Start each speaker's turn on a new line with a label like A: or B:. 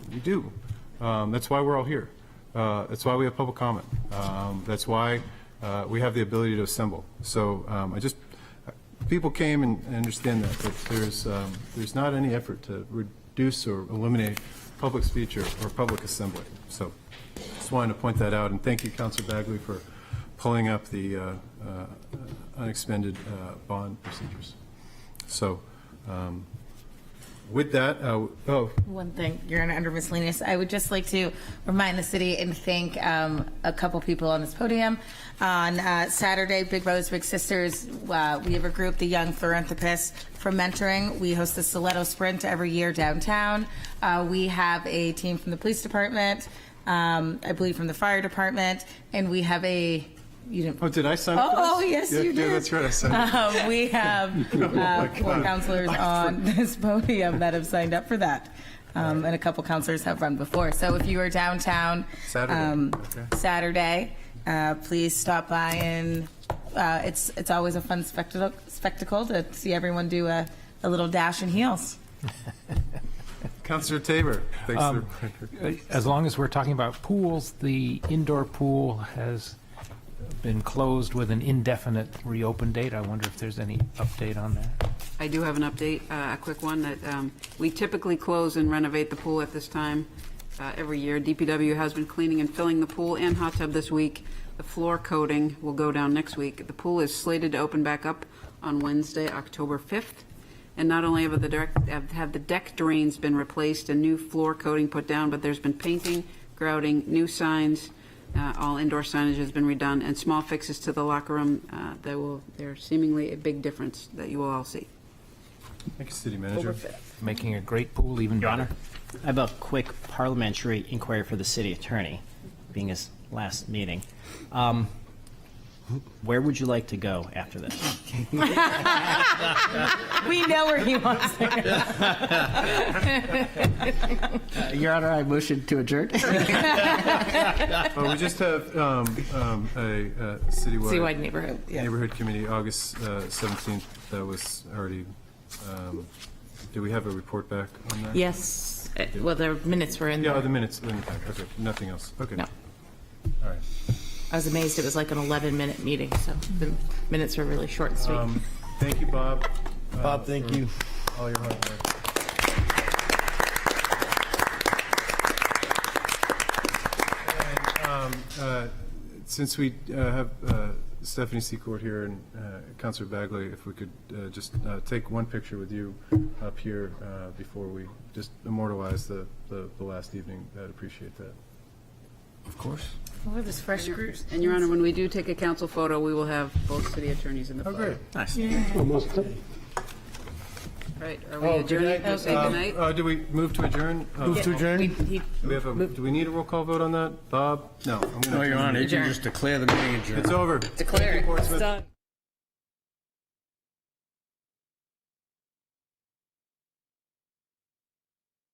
A: You do. Um, That's why we're all here. Uh, That's why we have public comment. Um, That's why uh, we have the ability to assemble. So um, I just, people came and and understand that, that there's, um, there's not any effort to reduce or eliminate public speech or or public assembly. So just wanted to point that out, and thank you, Counselor Bagley, for pulling up the uh, uh, unexpended uh, bond procedures. So um, with that, uh, oh,
B: One thing, you're Honor, under miscellaneous, I would just like to remind the city and thank um, a couple people on this podium. On uh, Saturday, Big Brothers Big Sisters, uh, we have a group, the Young Philanthropists for Mentoring. We host the Stiletto Sprint every year downtown. Uh, We have a team from the police department, um, I believe from the fire department, and we have a, you didn't.
A: oh, did I sign up for this?
B: Oh, oh, yes,
A: Yeah,
B: you
A: Yeah,
B: did.
A: that's right, I signed up.
B: Um, We have uh, four counselors on this podium that have signed up for that, Um, and a couple counselors have run before. So if you are downtown
A: Saturday,
B: um,
A: okay.
B: Saturday, uh, please stop by and uh, it's, it's always a fun spectacle, spectacle to see everyone do a, a little dash in heels. Uh,
A: Counselor Tabor, thanks for the reminder.
C: As long as we're talking about pools, the indoor pool has been closed with an indefinite reopen date. I wonder if there's any update on that.
D: I do have an update, uh, a quick one, that um, we typically close and renovate the pool at this time uh, every year. DPW has been cleaning and filling the pool and hot tub this week. The floor coating will go down next week. The pool is slated to open back up on Wednesday, October 5th. And not only have the direct, have have the deck drains been replaced and new floor coating put down, but there's been painting, grouting, new signs, uh, all indoor signage has been redone, and small fixes to the locker room. uh, That will, they're seemingly a big difference that you will all see.
A: Thank you, City Manager.
C: Making a great pool even
E: Your
C: better.
E: Honor, I have a quick parliamentary inquiry for the city attorney, being his last meeting. Um, Where would you like to go after this?
B: We know where he wants to go.
E: Your Honor, I motion to adjourn.
A: Oh, we just have um, um, a uh,
B: Citywide
A: citywide
B: neighborhood, yeah.
A: neighborhood committee, August uh, 17th, that was already, um, do we have a report back on that?
F: Yes, Uh, well, the minutes were in
A: Yeah, oh,
F: there.
A: the minutes, in the pack, okay, nothing else, okay.
F: No.
A: All right.
F: I was amazed, it was like an 11-minute meeting, so the minutes were really short and sweet.
A: Um, Thank you, Bob, Uh,
G: Bob, thank you.
A: all your hard work. And, um, uh, Since we uh, have uh, Stephanie Secord here and uh, Counselor Bagley, if we could uh, just uh, take one picture with you up here uh, before we just immortalize the, the the last evening, I'd appreciate that.
G: Of course.
B: We're this fresh group.
D: And Your Honor, when we do take a council photo, we will have both city attorneys in the
A: Oh,
D: photo.
E: Nice.
D: Right, are we adjourned? We'll say
A: Oh, Um,
D: goodnight?
A: uh, Do we move to adjourn? Uh,
G: Move to adjourn?
A: Do we have a, do we need a roll call vote on that? Bob? No. I'm gonna-
G: No, Your Honor, you can just declare the meeting adjourned.
A: It's over.
B: Declare it.
A: Portsmouth.
B: Done.